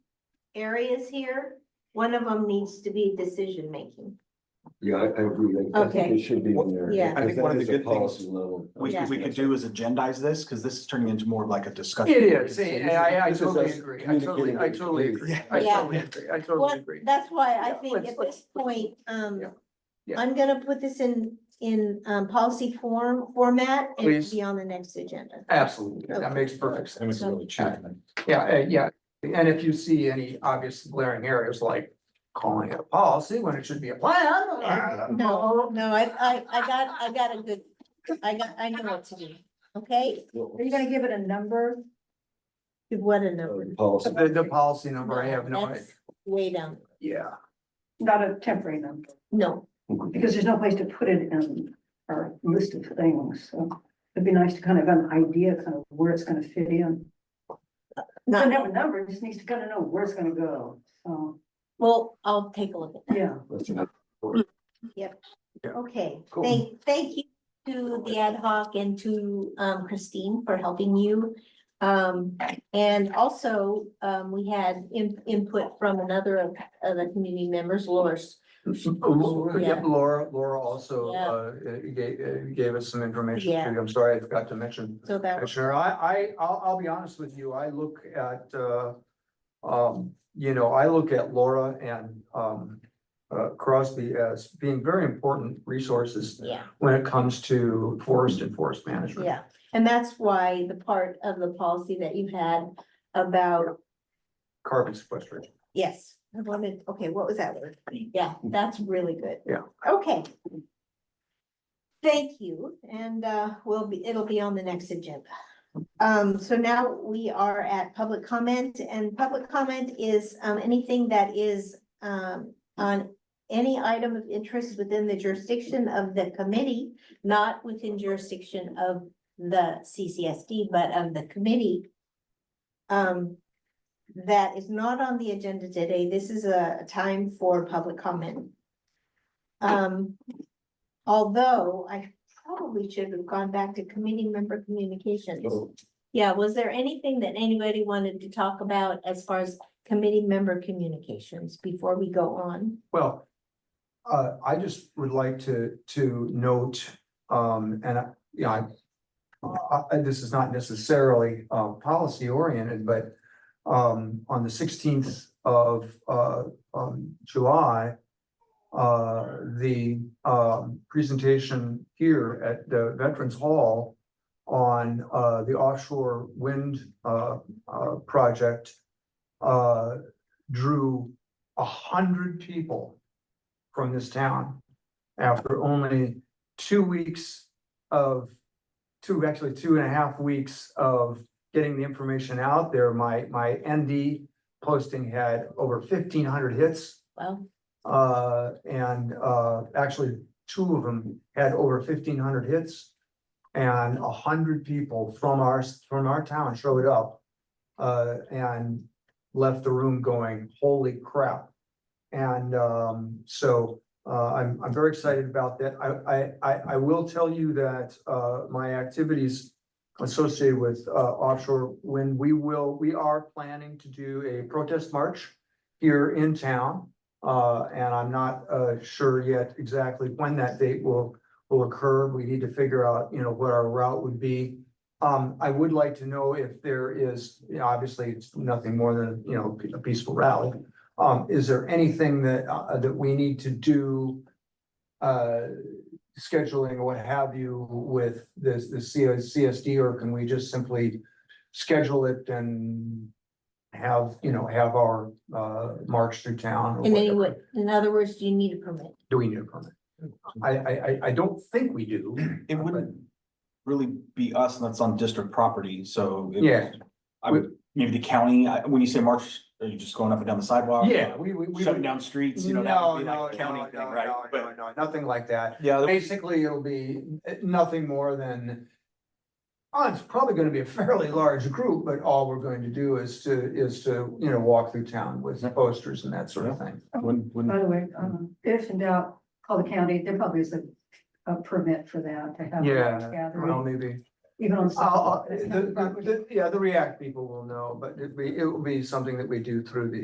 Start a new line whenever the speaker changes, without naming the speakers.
areas here, one of them needs to be decision making.
Yeah, I, I agree. I- I think
Okay.
It should be in there.
Yeah.
I think one of the
Because that is a
good things
policy level.
we,
Yeah.
we could do is agendize this, because this is turning into more of like a discussion.
It is,
This is-
and I, I
this is
totally
us
agree, I totally, I totally agree, I
Yeah.
totally agree, I totally
Well,
agree.
that's why I
Yeah,
think
let's-
at
let's-
this point, um,
Yeah. Yeah.
I'm gonna put this in, in, um, policy form, format and
Please.
be on the next agenda.
Absolutely, that makes perfect sense.
And we can really check. them.
Yeah, uh, yeah, and if you see any obvious glaring areas like calling it a policy when it should be a plan. uh,
No, no, I, I, I got, I got a good, I got, I know what to do, okay?
Are you gonna give it a number?
What a
Uh,
number.
Policy.
The, the policy number, I have no, idea.
That's Way down,
yeah,
Not a temporary number,
no,
because there's no place to put it in our list of things, so it'd be nice to kind of have an idea kind of where it's gonna fit in. Doesn't
not,
have a number, it just needs to kind of know where it's gonna go, so,
well, I'll take a look at
yeah.
That's not-
that, okay.
Cool.
Thank, thank you to the ad hoc and to, um, Christine for helping you. Um, and also, um, we had in- input from another of, of the community members, Laura's.
Laura,
Yeah.
yep, Laura, Laura also,
Yeah.
uh, gave, uh, gave us some information
Yeah.
too, I'm sorry, I forgot to mention.
So that
Uh,
was,
Sure, I, I, I'll, I'll be honest with you, I look at, uh, um, you know, I look at Laura and, um, uh, Crosby as being very important resources
yeah,
when it comes to forest and forest management.
yeah. And that's why the part of the policy that you had about,
Carbon sequestration.
yes, I wanted, okay, what was that word? Yeah, that's really good.
Yeah.
Okay. Thank you, and uh, we'll be, it'll be on the next agenda. Um, so now we are at public comment, and public comment is um anything that is um on any item of interest within the jurisdiction of the committee, not within jurisdiction of the CCSD, but of the committee. Um, that is not on the agenda today. This is a time for public comment. Um, although I probably should have gone back to committee member communications.
So,
Yeah, was there anything that anybody wanted to talk about as far as committee member communications before we go on?
Well, uh, I just would like to, to note, um, and, I- you know, I. Uh, I- this is not necessarily, uh, policy oriented, but, um, on the sixteenth of, uh, um, July. Uh, the, um, presentation here at the Veterans Hall. On, uh, the offshore wind, uh, uh, project. Uh, drew a hundred people from this town after only two weeks of, two, actually two and a half weeks of getting the information out there. My, my ND posting had over fifteen hundred hits.
Well,
Uh, and, uh, actually, two of them had over fifteen hundred hits. And a hundred people from our, from our town showed up. Uh, and left the room going, holy crap. And, um, so, uh, I'm, I'm very excited about that. I, I, I, I will tell you that, uh, my activities. Associated with, uh, offshore wind, we will, we are planning to do a protest march here in town. Uh, and I'm not, uh, sure yet exactly when that date will, will occur. We need to figure out, you know, what our route would be. Um, I would like to know if there is, you know, obviously, it's nothing more than, you know, a peaceful rally. Um, is there anything that, uh, that we need to do? Uh, scheduling or what have you with this, the CSD, or can we just simply schedule it and have, you know, have our, uh, march through town? or
in any way,
whatever?
in other words, do you need a permit?
Do we need a permit? I, I, I, I don't think we do.
It wouldn't really be us, and that's on district property, so. it-
Yeah.
I would, maybe the county, I- when you say March, are you just going up and down the sidewalk?
Yeah, we, we, we.
Shutting down streets, you know, that
No,
would be
no,
like a county
no,
thing,
no,
right?
no,
But,
no, no, Nothing like that.
yeah, that-
Basically, it'll be eh, nothing more than. Oh, it's probably gonna be a fairly large group, but all we're going to do is to, is to, you know, walk through town with posters and that sort of thing.
wouldn't,
By
wouldn't,
the way, um, if in doubt, call the county, there probably is a, a permit for that to have. a
Yeah, Well,
Gathering,
maybe,
even on.
Uh, I'll, I'll-
Sunday.
the, the- the- yeah, the React people will know, but it'd be, it will be something that we do through the